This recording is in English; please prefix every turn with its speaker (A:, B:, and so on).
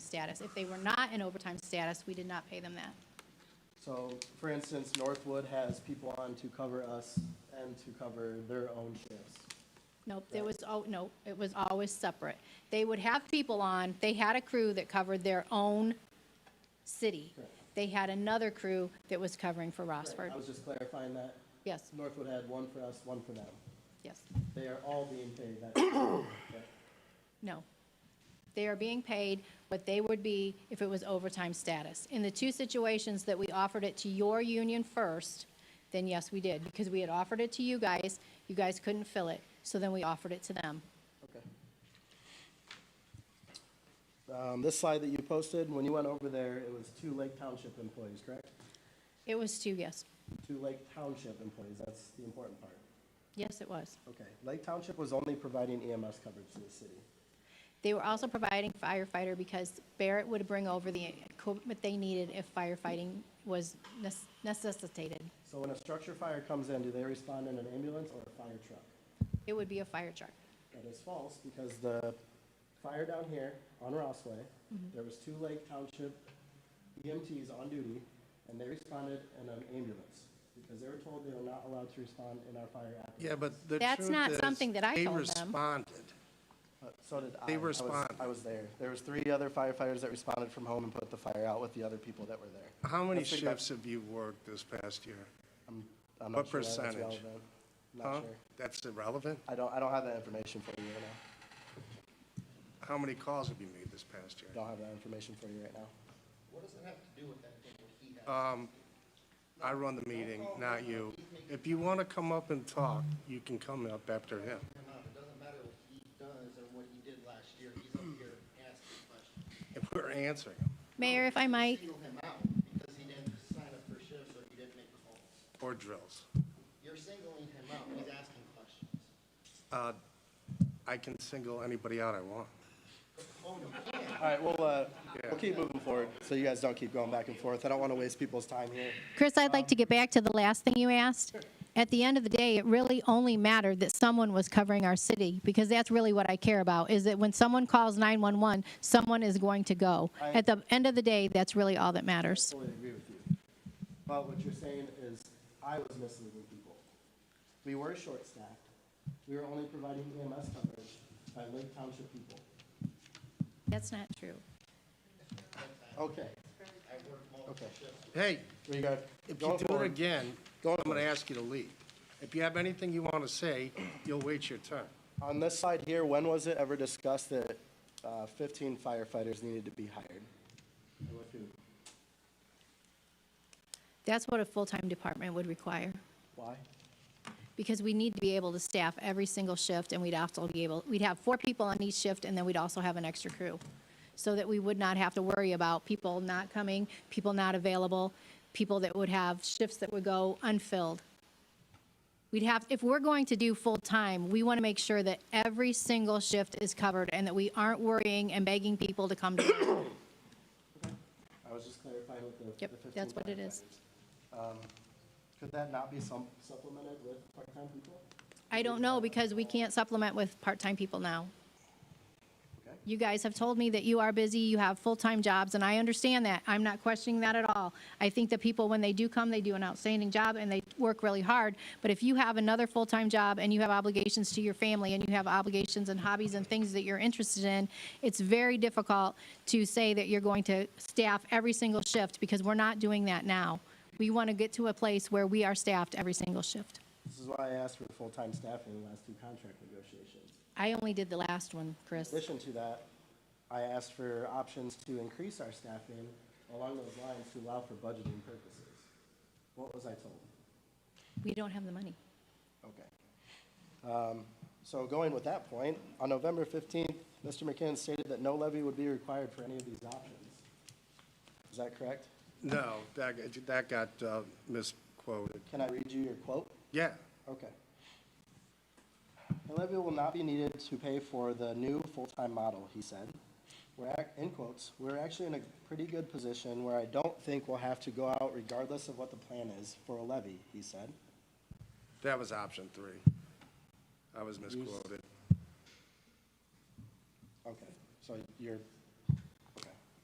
A: status. If they were not in overtime status, we did not pay them that.
B: So, for instance, Northwood has people on to cover us and to cover their own shifts.
A: Nope, there was, oh, no, it was always separate. They would have people on, they had a crew that covered their own city.
B: Correct.
A: They had another crew that was covering for Rossford.
B: I was just clarifying that
A: Yes,
B: Northwood had one for us, one for them.
A: yes.
B: They are all being paid that. Yeah.
A: No. They are being paid what they would be if it was overtime status. In the two situations that we offered it to your union first, then yes, we did, because we had offered it to you guys, you guys couldn't fill it, so then we offered it to them.
B: Okay. Um, This slide that you posted, when you went over there, it was two Lake Township employees, correct?
A: It was two, yes.
B: Two Lake Township employees, that's the important part.
A: Yes, it was.
B: Okay, Lake Township was only providing EMS coverage to the city.
A: They were also providing firefighter because Barrett would bring over the equipment they needed if firefighting was necess- necessitated.
B: So when a structure fire comes in, do they respond in an ambulance or a fire truck?
A: It would be a fire truck.
B: That is false, because the fire down here on Rossway, there was two Lake Township EMTs on duty, and they responded in an ambulance, because they were told they were not allowed to respond in our fire apparatus.
C: Yeah, but the
A: That's
C: truth
A: not
C: is,
A: something that I told them.
C: They responded.
B: But Uh, So did I.
C: They
B: I was-
C: responded.
B: I was there. There was three other firefighters that responded from home and put the fire out with the other people that were there.
C: How many
B: Let's think about-
C: shifts have you worked this past year?
B: I'm not
C: what
B: sure why that's
C: percentage?
B: relevant. I'm
C: Huh?
B: Not sure.
C: That's irrelevant?
B: I don't, I don't have that information for you right now.
C: How many calls have you made this past year?
B: Don't have that information for you right now.
D: What does it have to do with that thing with heat?
C: I run the meeting, not you. If you want to come up and talk, you can come up after him.
D: Or not, it doesn't matter what he does or what he did last year, he's up here asking questions.
C: If we're answering him,
A: Mayor, if I might,
D: Single him out because he didn't sign up for shifts or he didn't make calls.
C: or drills.
D: You're singling him out, he's asking questions.
C: Uh, I can single anybody out I want.
D: Oh, no, he can't.
B: All right, we'll, uh,
C: Yeah.
B: we'll keep moving forward, so you guys don't keep going back and forth. I don't want to waste people's time here.
A: Chris, I'd like to get back to the last thing you asked. At the end of the day, it really only mattered that someone was covering our city, because that's really what I care about, is that when someone calls 911, someone is going to go. At the end of the day, that's really all that matters.
B: Totally agree with you. But what you're saying is, I was misleading people. We were short-staffed. We were only providing EMS coverage by Lake Township people.
A: That's not true.
B: Okay. Okay.
C: Hey,
B: We got,
C: if you
B: going
C: do it
B: forward.
C: again, I'm going to ask you to leave. If you have anything you want to say, you'll wait your turn.
B: On this slide here, when was it ever discussed that uh, 15 firefighters needed to be hired?
A: That's what a full-time department would require,
B: Why?
A: because we need to be able to staff every single shift, and we'd also be able, we'd have four people on each shift, and then we'd also have an extra crew, so that we would not have to worry about people not coming, people not available, people that would have shifts that would go unfilled. We'd have, if we're going to do full-time, we want to make sure that every single shift is covered, and that we aren't worrying and begging people to come to work.
B: I was just clarifying with the the
A: Yep,
B: 15
A: that's what it is.
B: firefighters. Um, Could that not be some- supplemented with part-time people?
A: I don't know, because we can't supplement with part-time people now.
B: Okay.
A: You guys have told me that you are busy, you have full-time jobs, and I understand that. I'm not questioning that at all. I think that people, when they do come, they do an outstanding job and they work really hard. But if you have another full-time job and you have obligations to your family and you have obligations and hobbies and things that you're interested in, it's very difficult to say that you're going to staff every single shift because we're not doing that now. We want to get to a place where we are staffed every single shift.
B: This is why I asked for full-time staffing in the last two contract negotiations.
A: I only did the last one,
B: In
A: Chris.
B: addition to that, I asked for options to increase our staffing along those lines to allow for budgeting purposes. What was I told?
A: We don't have the money.
B: Okay. Um, So going with that point, on November 15th, Mr. McKinnon stated that no levy would be required for any of these options. Is that correct?
C: No, that, that got uh, misquoted.
B: Can I read you your quote?
C: Yeah,
B: Okay. A levy will not be needed to pay for the new full-time model, he said. We're, ac- in quotes, "We're actually in a pretty good position where I don't think we'll have to go out regardless of what the plan is for a levy," he said.
C: that was option three. I was misquoted.
B: Okay, so your